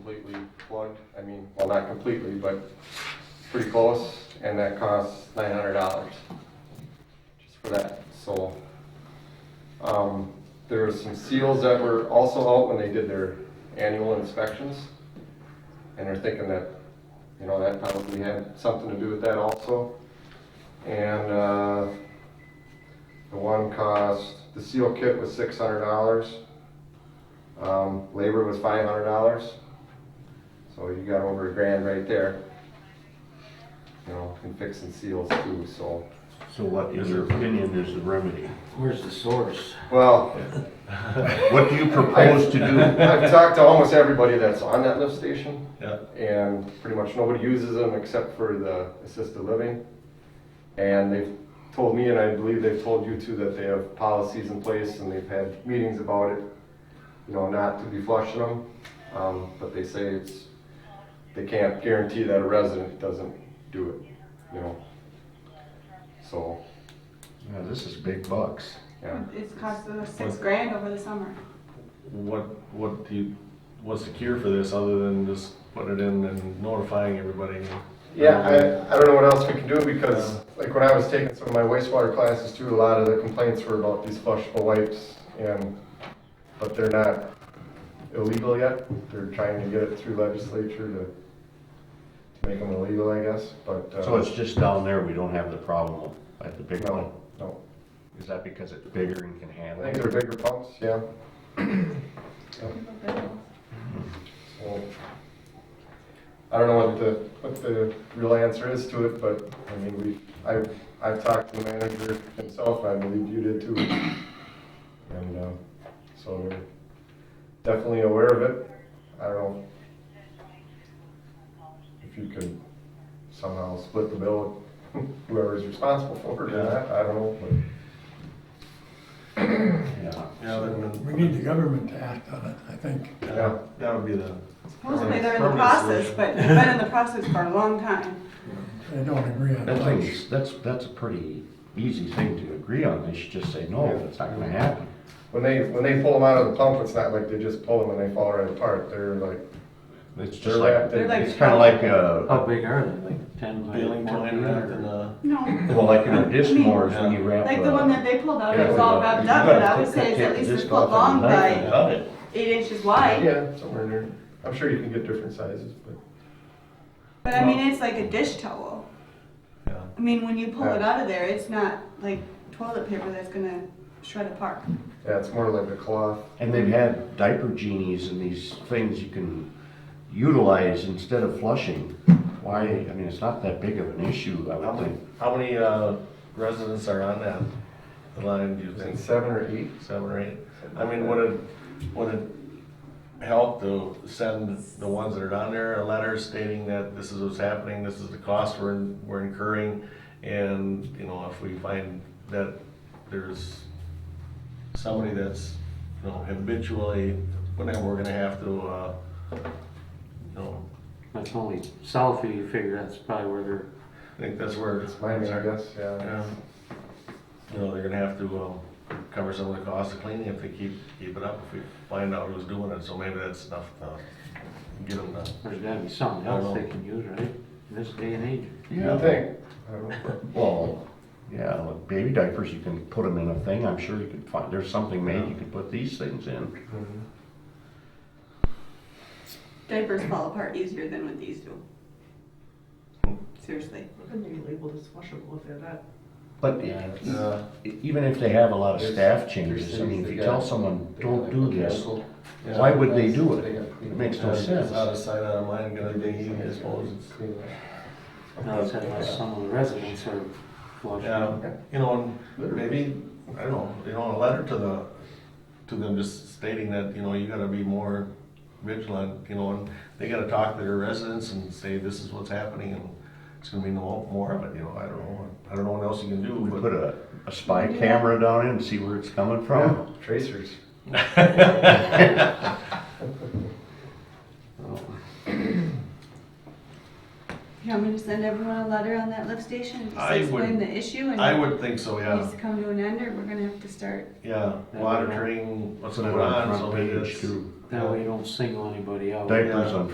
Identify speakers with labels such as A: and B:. A: not completely, but pretty close, and that costs nine hundred dollars just for that, so. Um, there were some seals that were also out when they did their annual inspections, and they're thinking that, you know, that probably had something to do with that also. And, uh, the one cost, the seal kit was six hundred dollars. Um, labor was five hundred dollars. So you got over a grand right there. You know, in fixing seals too, so.
B: So what, in your opinion, is the remedy?
C: Where's the source?
A: Well,
B: What do you propose to do?
A: I've talked to almost everybody that's on that lift station.
B: Yeah.
A: And pretty much nobody uses them except for the assisted living. And they've told me, and I believe they've told you too, that they have policies in place and they've had meetings about it. You know, not to be flushing them, um, but they say it's, they can't guarantee that a resident doesn't do it, you know? So,
B: Yeah, this is big bucks.
A: yeah.
D: It's cost us six grand over the summer.
E: What, what do you, what's the cure for this other than just putting it in and notifying everybody?
A: Yeah, I, I don't know what else we can do because, like, when I was taking some of my wastewater classes too, a lot of the complaints were about these flushable wipes and, but they're not illegal yet. They're trying to get it through legislature to, to make them illegal, I guess, but. uh,
B: So it's just down there, we don't have the problem at the big one?
A: No, no.
B: Is that because it's bigger and can
A: I
B: handle
A: think
B: it?
A: they're bigger pumps, yeah. So, I don't know what the, what the real answer is to it, but, I mean, we, I, I've talked to the manager himself, and I believe you did too. And, uh, so we're definitely aware of it. I don't know if you could somehow split the bill, with whoever's responsible for it or not, I don't know, but.
B: Yeah.
E: Yeah, then,
F: We need the government to act on it, I think.
A: Yeah.
E: that, that would be the,
D: Supposedly they're in the
E: Permanent
D: process,
E: solution.
D: but they've been in the process for a long time.
F: They don't agree on
B: That
F: much.
B: thing's, that's, that's a pretty easy thing to agree on, they should just say, no, that's not gonna happen.
A: When they when they pull them out of the pump, it's not like they just pull them and they fall right apart. They're like
B: It's
A: They're
B: just like,
A: wrapped in-
D: They're
B: it's kinda like uh,
C: How
B: a,
C: big are they, like ten by
E: feeling
C: fourteen?
E: plan rather than,
C: or-
E: uh,
D: No,
B: well, like in a disc more is when you wrap
D: like the one
B: a.
D: that they pulled out,
A: Yeah,
D: it was
A: we
D: all
A: don't-
D: wrapped
B: you
D: up,
B: gotta
D: but I would
B: take
D: say it's
B: that
D: at least a
B: disc
D: foot
B: off with a
D: long
B: knife and
D: by
B: cut it.
D: eight inches wide.
A: yeah, somewhere near. I'm sure you can get different sizes, but
D: But I mean, it's like a dish towel.
E: yeah.
D: I mean, when you pull
A: Yeah.
D: it out of there, it's not like toilet paper that's gonna shred apart.
A: yeah, it's more like a cloth.
B: And they've had diaper genies and these things you can utilize instead of flushing. Why, I mean, it's not that big of an issue, I
E: How
B: would
E: many,
B: think.
E: how many, uh, residents are on that line, do you
A: Is it
E: think?
A: seven or eight?
E: Seven or eight? I mean, would it, would it help to send the ones that are down there a letter stating that this is what's happening, this is the cost we're, we're incurring? And, you know, if we find that there's somebody that's, you know, habitually, whatever, we're gonna have to, uh, you know,
C: That's only south of you figure, that's probably where they're,
E: I think that's where.
A: It's mine, I guess. Yeah.
E: Yeah. You know, they're gonna have to, um, cover some of the cost of cleaning if they keep, keep it up, if we find out who's doing it, so maybe that's enough to get them to.
C: there's gotta be something
E: I
C: else
E: know.
C: they can use, right? In this day and age.
A: You think? I don't know.
B: Well, yeah, like baby diapers, you can put them in a thing, I'm sure you could find, there's something made, you can put these things in.
D: Diapers fall apart easier than what these do. Seriously.
G: Couldn't they be labeled as flushable if they're that?
B: But e-
E: Uh,
B: even if they have a lot of
A: There's-
B: staff
A: there's
B: changes, I
A: things
B: mean, if
A: they
B: you
A: got-
B: tell someone,
A: They got
B: don't
A: like
B: do
A: the
B: this,
A: chemical-
E: yeah.
B: why would they do
A: They
B: it?
A: got
B: It makes no
E: It's
B: sense.
E: out of sight, out of mind, gonna be, I suppose, it's,
A: Clean it.
C: Now it's had like some of the residents are
E: yeah,
C: flushing.
E: you know, and maybe, I don't know, you know, a letter to the, to them just stating that, you know, you gotta be more vigilant, you know, and they gotta talk to their residents and say, this is what's happening, and it's gonna be no more of it, you know, I don't know, I don't know what else you can do,
B: We
E: but.
B: put a, a spy camera down in and see where it's coming from.
A: Yeah, tracers.
D: You want me to send everyone a letter on that lift station and just
E: I
D: explain
E: would-
D: the issue and
E: I would think so,
D: it needs
E: yeah,
D: to come to an end or we're gonna have to start.
E: yeah, monitoring what's
B: Put it
E: going
B: on
E: on,
B: the
E: so
B: front
E: maybe
B: page
E: it's,
B: too.
C: That way you don't single anybody out.
B: Diapers on